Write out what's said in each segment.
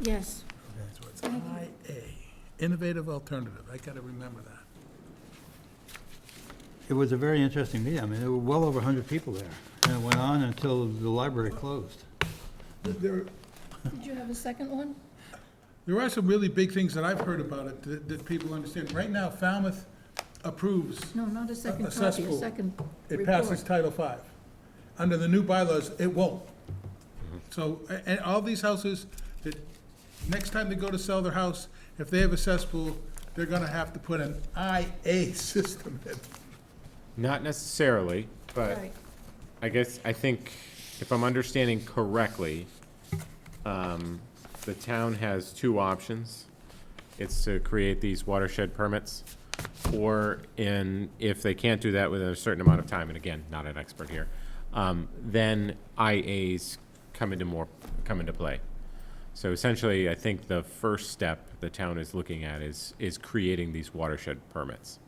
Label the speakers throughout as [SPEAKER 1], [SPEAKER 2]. [SPEAKER 1] Yes.
[SPEAKER 2] Okay, so it's IA, innovative alternative, I gotta remember that.
[SPEAKER 3] It was a very interesting meeting. I mean, there were well over 100 people there, and it went on until the library closed.
[SPEAKER 2] There,
[SPEAKER 1] Did you have a second one?
[SPEAKER 2] there are some really big things that I've heard about it that, that people understand. Right now, Falmouth approves,
[SPEAKER 1] No, not a second
[SPEAKER 2] A
[SPEAKER 1] copy, a
[SPEAKER 2] cesspool.
[SPEAKER 1] second
[SPEAKER 2] it passes
[SPEAKER 1] report.
[SPEAKER 2] Title V. Under the new bylaws, it won't. So, a- and all these houses, that, next time they go to sell their house, if they have a cesspool, they're gonna have to put an IA system in.
[SPEAKER 4] Not necessarily, but
[SPEAKER 1] Right.
[SPEAKER 4] I guess, I think, if I'm understanding correctly, um, the town has two options. It's to create these watershed permits, or in, if they can't do that within a certain amount of time, and again, not an expert here, um, then IAs come into more, come into play. So essentially, I think the first step the town is looking at is, is creating these watershed permits.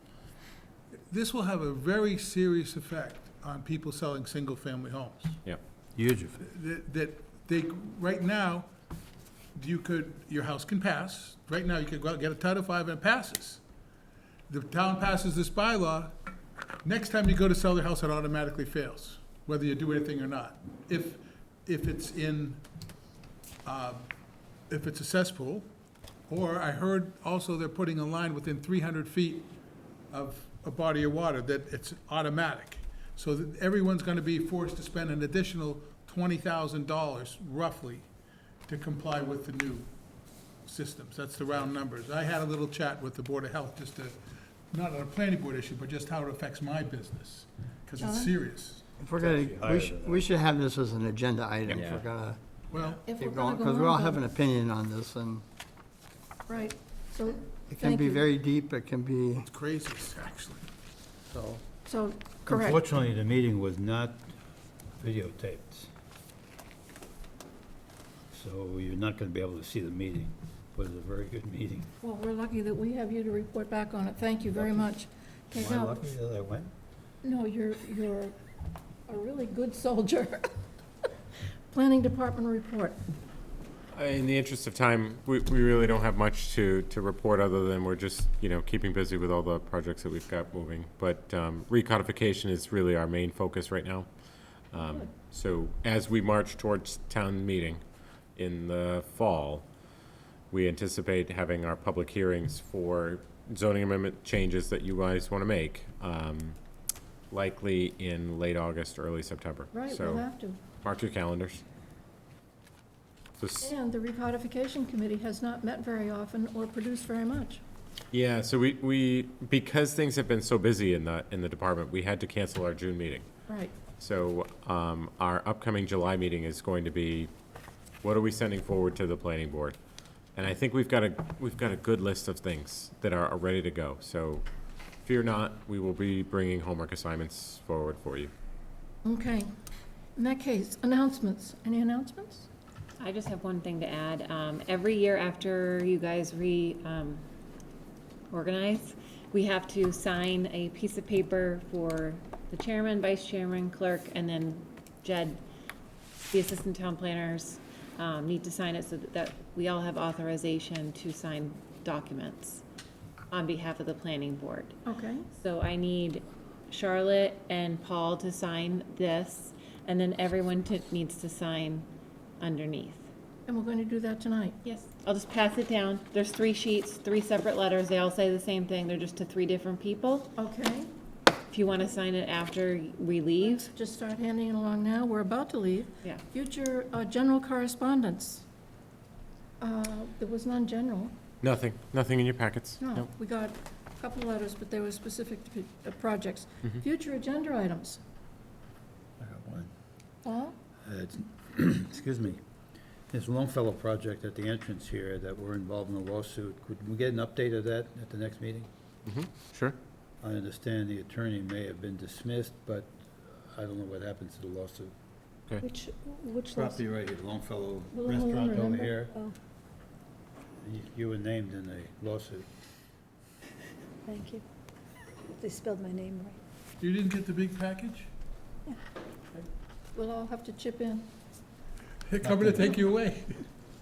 [SPEAKER 2] This will have a very serious effect on people selling single-family homes.
[SPEAKER 4] Yep.
[SPEAKER 3] Huge.
[SPEAKER 2] that, that they, right now, you could, your house can pass, right now, you could go out and get a Title V and it passes. The town passes this bylaw, next time you go to sell their house, it automatically fails, whether you do anything or not. If, if it's in, um, if it's a cesspool, or I heard also they're putting a line within three hundred feet of a body of water, that it's automatic. So that everyone's gonna be forced to spend an additional twenty thousand dollars roughly to comply with the new systems. That's the round numbers. I had a little chat with the Board of Health just to, not on a planning board issue, but just how it affects my business, because
[SPEAKER 1] John?
[SPEAKER 2] it's serious.
[SPEAKER 5] If we're gonna, we should, we should have this as an agenda item, if
[SPEAKER 4] Yeah.
[SPEAKER 5] we're gonna
[SPEAKER 2] Well,
[SPEAKER 1] If we're
[SPEAKER 5] keep
[SPEAKER 1] gonna
[SPEAKER 5] going,
[SPEAKER 1] go
[SPEAKER 5] because we all
[SPEAKER 1] on,
[SPEAKER 5] have an
[SPEAKER 1] then-
[SPEAKER 5] opinion on this, and
[SPEAKER 1] Right, so,
[SPEAKER 5] it can
[SPEAKER 1] thank
[SPEAKER 5] be
[SPEAKER 1] you.
[SPEAKER 5] very deep, it can be,
[SPEAKER 2] it's crazy, actually.
[SPEAKER 5] so.
[SPEAKER 1] So, correct.
[SPEAKER 3] Unfortunately, the meeting was not videotaped. So you're not going to be able to see the meeting, but it was a very good meeting.
[SPEAKER 1] Well, we're lucky that we have you to report back on it. Thank you very much. Okay,
[SPEAKER 3] Am I
[SPEAKER 1] now-
[SPEAKER 3] lucky that I went?
[SPEAKER 1] No, you're, you're a really good soldier. Planning Department report.
[SPEAKER 4] In the interest of time, we, we really don't have much to, to report other than we're just, you know, keeping busy with all the projects that we've got moving. But um, recodification is really our main focus right now. Um, So as we march towards town meeting in the fall, we anticipate having our public hearings for zoning amendment changes that you guys want to make, um, likely in late August, early September.
[SPEAKER 1] Right, we'll
[SPEAKER 4] So
[SPEAKER 1] have to.
[SPEAKER 4] mark your calendars. So s-
[SPEAKER 1] And the recodification committee has not met very often or produced very much.
[SPEAKER 4] Yeah, so we, we, because things have been so busy in the, in the department, we had to cancel our June meeting.
[SPEAKER 1] Right.
[SPEAKER 4] So, um, our upcoming July meeting is going to be, what are we sending forward to the planning board? And I think we've got a, we've got a good list of things that are, are ready to go, so fear not, we will be bringing homework assignments forward for you.
[SPEAKER 1] Okay. In that case, announcements. Any announcements?
[SPEAKER 6] I just have one thing to add. Um, every year after you guys re, um, organize, we have to sign a piece of paper for the chairman, vice chairman, clerk, and then Jed, the assistant town planners, um, need to sign it so that we all have authorization to sign documents on behalf of the planning board.
[SPEAKER 1] Okay.
[SPEAKER 6] So I need Charlotte and Paul to sign this, and then everyone to, needs to sign underneath.
[SPEAKER 1] And we're going to do that tonight.
[SPEAKER 6] Yes. I'll just pass it down. There's three sheets, three separate letters. They all say the same thing. They're just to three different people.
[SPEAKER 1] Okay.
[SPEAKER 6] If you want to sign it after we leave,
[SPEAKER 1] Just start handing it along now. We're about to leave.
[SPEAKER 6] yeah.
[SPEAKER 1] Future uh, general correspondence. Uh, There was none general.
[SPEAKER 4] Nothing, nothing in your packets?
[SPEAKER 1] No,
[SPEAKER 4] Nope.
[SPEAKER 1] we got a couple letters, but they were specific to uh, projects. Future agenda items.
[SPEAKER 3] I got one.
[SPEAKER 1] Paul?
[SPEAKER 3] Uh, it's- Excuse me. This Longfellow project at the entrance here that we're involved in a lawsuit, could we get an update of that at the next meeting?
[SPEAKER 4] Sure.
[SPEAKER 3] I understand the attorney may have been dismissed, but I don't know what happens to the lawsuit.
[SPEAKER 1] Which, which
[SPEAKER 3] Property right here, Longfellow
[SPEAKER 1] Will anyone
[SPEAKER 3] Restaurant over
[SPEAKER 1] remember?
[SPEAKER 3] here.
[SPEAKER 1] Oh,
[SPEAKER 3] You- You were named in the lawsuit.
[SPEAKER 7] Thank you. They spelled my name right.
[SPEAKER 2] You didn't get the big package?
[SPEAKER 1] We'll all have to chip in.
[SPEAKER 2] They're coming to take you away.